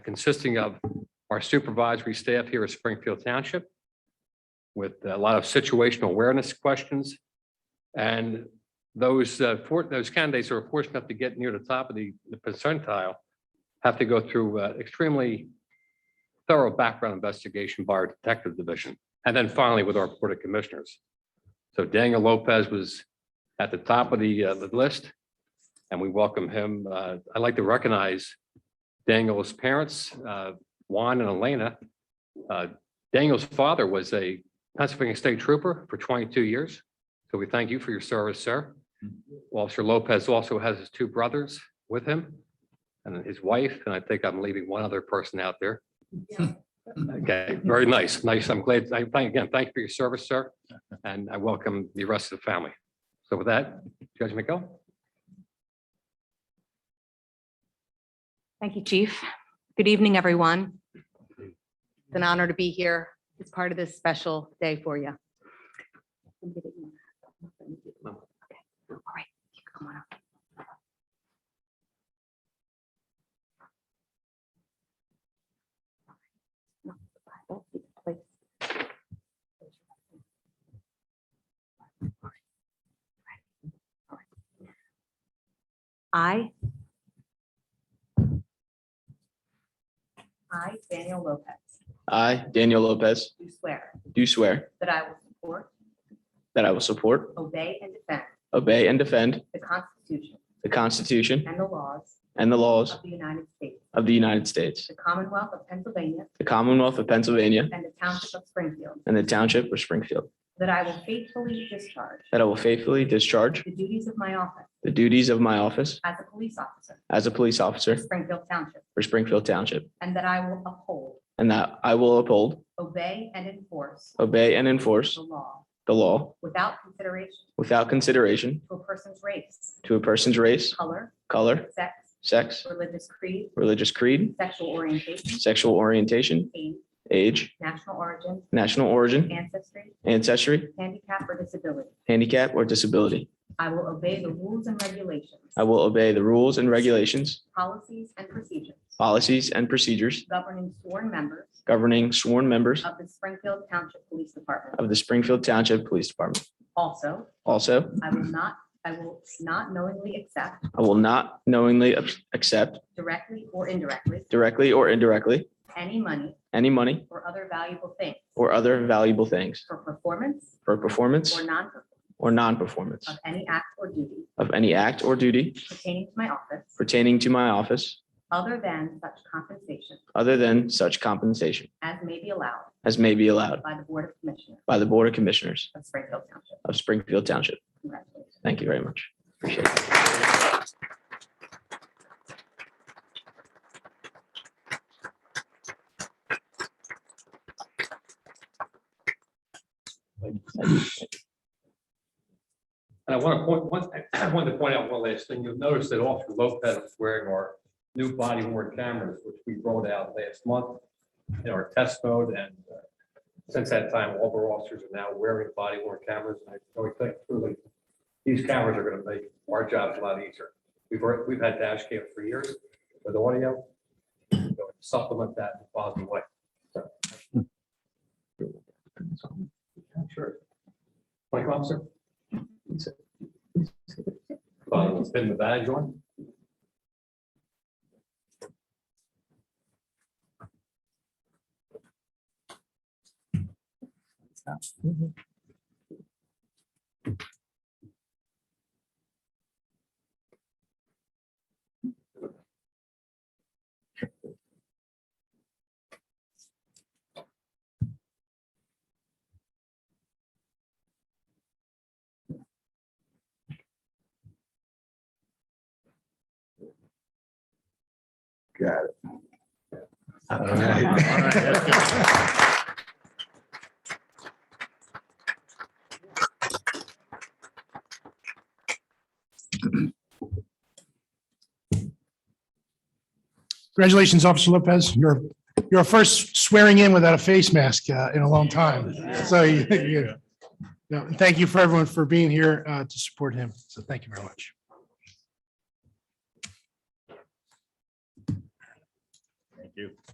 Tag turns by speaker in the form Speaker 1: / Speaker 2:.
Speaker 1: consisting of our supervisory staff here at Springfield Township with a lot of situational awareness questions. And those, uh, for- those candidates who are fortunate enough to get near the top of the the percentile have to go through uh, extremely thorough background investigation by our detective division. And then finally with our Board of Commissioners. So Daniel Lopez was at the top of the, uh, the list and we welcome him. Uh, I'd like to recognize Daniel's parents, uh, Juan and Elena. Uh, Daniel's father was a Pennsylvania State Trooper for 22 years. So we thank you for your service, sir. Officer Lopez also has his two brothers with him and his wife, and I think I'm leaving one other person out there. Okay, very nice, nice. I'm glad, I thank, again, thank you for your service, sir, and I welcome the rest of the family. So with that, Judge McGill?
Speaker 2: Thank you, Chief. Good evening, everyone. It's an honor to be here. It's part of this special day for you. Okay. All right, come on up. All right. I I, Daniel Lopez,
Speaker 3: I, Daniel Lopez,
Speaker 2: do swear
Speaker 3: do swear
Speaker 2: that I will support,
Speaker 3: that I will support,
Speaker 2: obey, and defend
Speaker 3: obey, and defend
Speaker 2: the Constitution
Speaker 3: the Constitution
Speaker 2: and the laws
Speaker 3: and the laws
Speaker 2: of the United States,
Speaker 3: of the United States,
Speaker 2: the Commonwealth of Pennsylvania,
Speaker 3: the Commonwealth of Pennsylvania,
Speaker 2: and the Township of Springfield,
Speaker 3: and the Township of Springfield,
Speaker 2: that I will faithfully discharge
Speaker 3: that I will faithfully discharge
Speaker 2: the duties of my office
Speaker 3: the duties of my office
Speaker 2: as a police officer
Speaker 3: as a police
Speaker 2: for
Speaker 3: officer
Speaker 2: Springfield Township,
Speaker 3: for Springfield Township,
Speaker 2: and that I will uphold,
Speaker 3: and that I will uphold,
Speaker 2: obey, and enforce
Speaker 3: obey, and enforce
Speaker 2: the law
Speaker 3: the law
Speaker 2: without consideration
Speaker 3: without consideration
Speaker 2: to a person's race,
Speaker 3: to a person's race,
Speaker 2: color,
Speaker 3: color,
Speaker 2: sex,
Speaker 3: sex,
Speaker 2: religious creed,
Speaker 3: religious creed,
Speaker 2: sexual orientation,
Speaker 3: sexual orientation,
Speaker 2: age,
Speaker 3: age,
Speaker 2: national origin,
Speaker 3: national origin,
Speaker 2: ancestry,
Speaker 3: ancestry,
Speaker 2: handicap, or disability.
Speaker 3: handicap, or disability.
Speaker 2: I will obey the rules and regulations,
Speaker 3: I will obey the rules and regulations,
Speaker 2: policies, and procedures
Speaker 3: policies, and procedures
Speaker 2: governing sworn members
Speaker 3: governing sworn members
Speaker 2: of the Springfield Township Police Department.
Speaker 3: of the Springfield Township Police Department.
Speaker 2: Also,
Speaker 3: Also,
Speaker 2: I will not, I will not knowingly accept
Speaker 3: I will not knowingly ab- accept
Speaker 2: directly or indirectly
Speaker 3: directly or indirectly
Speaker 2: any money
Speaker 3: any money
Speaker 2: or other valuable thing
Speaker 3: or other valuable things
Speaker 2: for performance
Speaker 3: for performance
Speaker 2: or non-performance
Speaker 3: or non-performance
Speaker 2: of any act or duty
Speaker 3: of any act or duty
Speaker 2: pertaining to my office
Speaker 3: pertaining to my office
Speaker 2: other than such compensation
Speaker 3: other than such compensation
Speaker 2: as may be allowed
Speaker 3: as may be allowed
Speaker 2: by the Board of Commissioners
Speaker 3: by the Board of Commissioners
Speaker 2: of Springfield Township.
Speaker 3: of Springfield Township.
Speaker 2: Congratulations.
Speaker 3: Thank you very much. Appreciate it.
Speaker 1: And I want to point, one, I wanted to point out one last thing. You'll notice that Officer Lopez is wearing our new body worn cameras, which we rolled out last month in our test mode. And uh, since that time, all of our officers are now wearing body worn cameras. And I really think truly, these cameras are going to make our jobs a lot easier. We've, already- we've had dash cam for years with audio. So Supplement that in a positive way. Sure. Like officer? Well, it's been the badge on.
Speaker 4: Got it.
Speaker 5: Congratulations, Officer Lopez. You're, you're first swearing in without a face mask uh, in a long time. So you, you- no, and thank you for everyone for being here uh, to support him. So thank you very much.
Speaker 4: Thank Thank you.